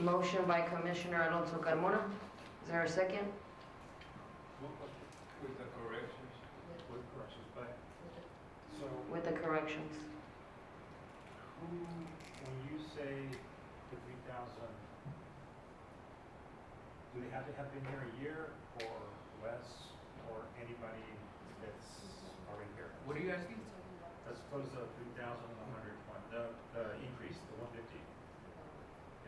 Motion by Commissioner Alonso Carmona. Is there a second? With the corrections? With corrections, but, so With the corrections. who, when you say the three thousand, do they have to have been here a year or less, or anybody that's already here? What are you asking? As opposed to three thousand one hundred one, the, the increase, the one fifty.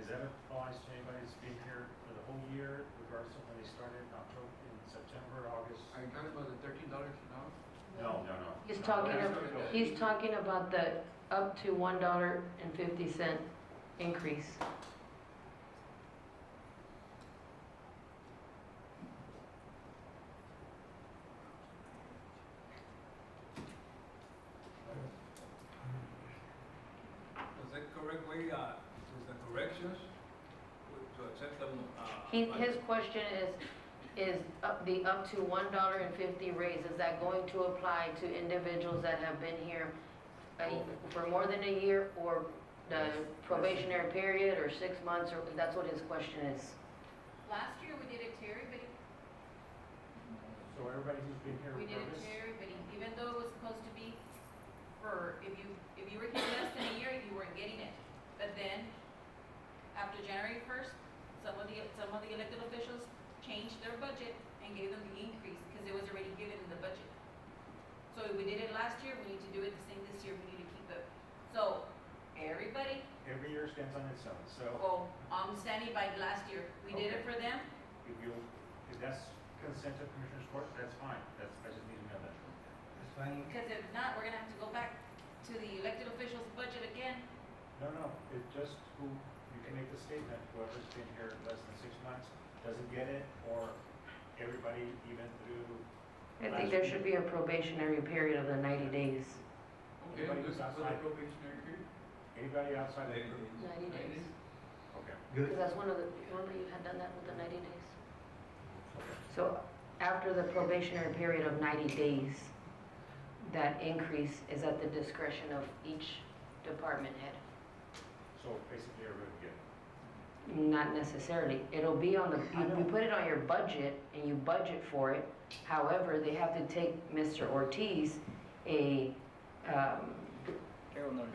Is that applies to anybody that's been here for the whole year, regardless of when they started in October, in September, August? Are you talking about the thirteen dollars an hour? No, no, no. He's No, talking that's about- what it is. He's talking about the up to $1.50 increase. Was that correct way, uh, with the corrections, with- to accept them? uh, He- by- His question is, is up- the up to $1.50 raise, is that going to apply to individuals that have been here a- for more than a year or the probationary period or six months, or that's what his question is? Last year, we did it to everybody. So everybody who's been here We did it regardless? to everybody, even though it was supposed to be for, if you, if you were here less than a year, you weren't getting it. But then, after January first, some of the, some of the elected officials changed their budget and gave them the increase, because it was already given in the budget. So we did it last year, we need to do it the same this year, we need to keep it. So, everybody, Every year stands on its own, so well, I'm standing by last year, we did it for them, if you, if that's consent of Commissioner's Court, that's fine, that's, I just need to know that. because if not, we're gonna have to go back to the elected officials' budget again, No, no, it just, who, you can make the statement, whoever's been here less than six months doesn't get it, or everybody even through, I think there should be a probationary period of the 90 days. Okay, Everybody with was the outside. probationary period? anybody outside the group. 90 days. Okay. Because that's one of the, remember you had done that with the 90 days? So after the probationary period of 90 days, that increase is at the discretion of each department head. So basically, everybody would get it. Not necessarily. It'll be on the, I you know. you put it on your budget and you budget for it. However, they have to take Mr. Ortiz a um, Payroll notice.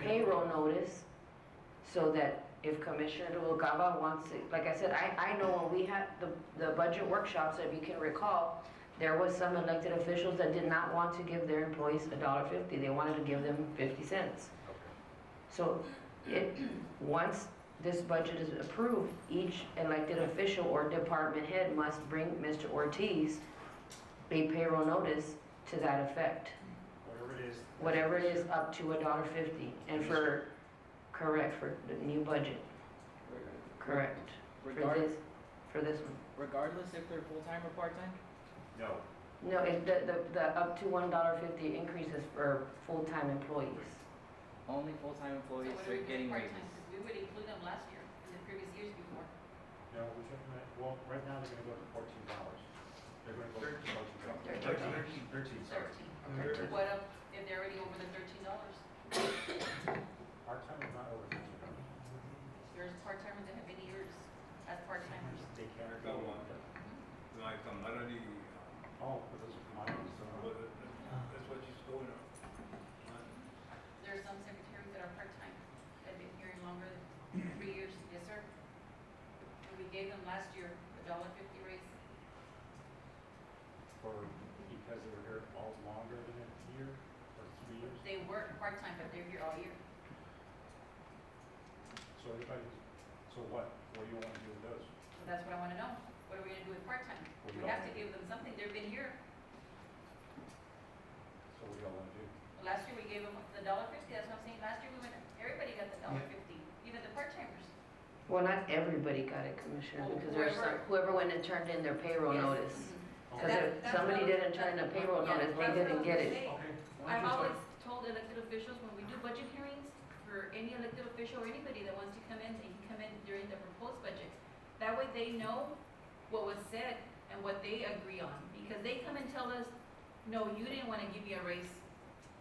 payroll notice so that if Commissioner Duokawa wants to, like I said, I, I know when we had the, the budget workshops, if you can recall, there was some elected officials that did not want to give their employees a dollar fifty, they wanted to give them fifty cents. So it, once this budget is approved, each elected official or department head must bring Mr. Ortiz a payroll notice to that effect Whatever it is. whatever it is, up to a dollar fifty, and for, correct, for the new budget, correct. For Regardless, this, for this one. regardless if they're full-time or part-time? No, No, it, the, the, the up to one dollar fifty increase is for full-time employees. Only full-time So employees what are are we getting doing part raises. time? We would include them last year, and the previous years before. no, we're talking about, well, right now, they're gonna go to fourteen dollars. They're gonna go to fourteen dollars. Thirteen. Thirteen, sorry. Thirteen. Thirteen. What if, if they're already over the thirteen dollars? Our time is not over fifteen dollars. There's part-timers that have been years as part-timers. They can't. That one. Like a melody, Oh, but those are commodities, uh, so. what- that's what she's going Ah. on. There are some secretaries that are part-time, that have been here longer than three years. Yes, sir. And we gave them last year a dollar fifty raise. for, because they were here all longer than a year or three years. They work part-time, but they're here all year. So everybody, so what, what do you want to do with those? So that's what I want to know. What are we gonna do with part-time? What do We you have want? to give them something. They've been here. So what do y'all want to do? Last year, we gave them the dollar fifty. That's what I'm saying. Last year, we went, everybody got the dollar fifty, even the part-timers. Well, not everybody got it, Commissioner, because there's some, Whoever- whoever went and turned in their payroll Yes. notice. Mhm. Because if somebody didn't turn in a payroll notice, they didn't get it. Okay. I've always told elected officials, when we do budget hearings, for any elected official or anybody that wants to come in, they can come in during the proposed budget. That way they know what was said and what they agree on, because they come and tell us, no, you didn't want to give me a raise,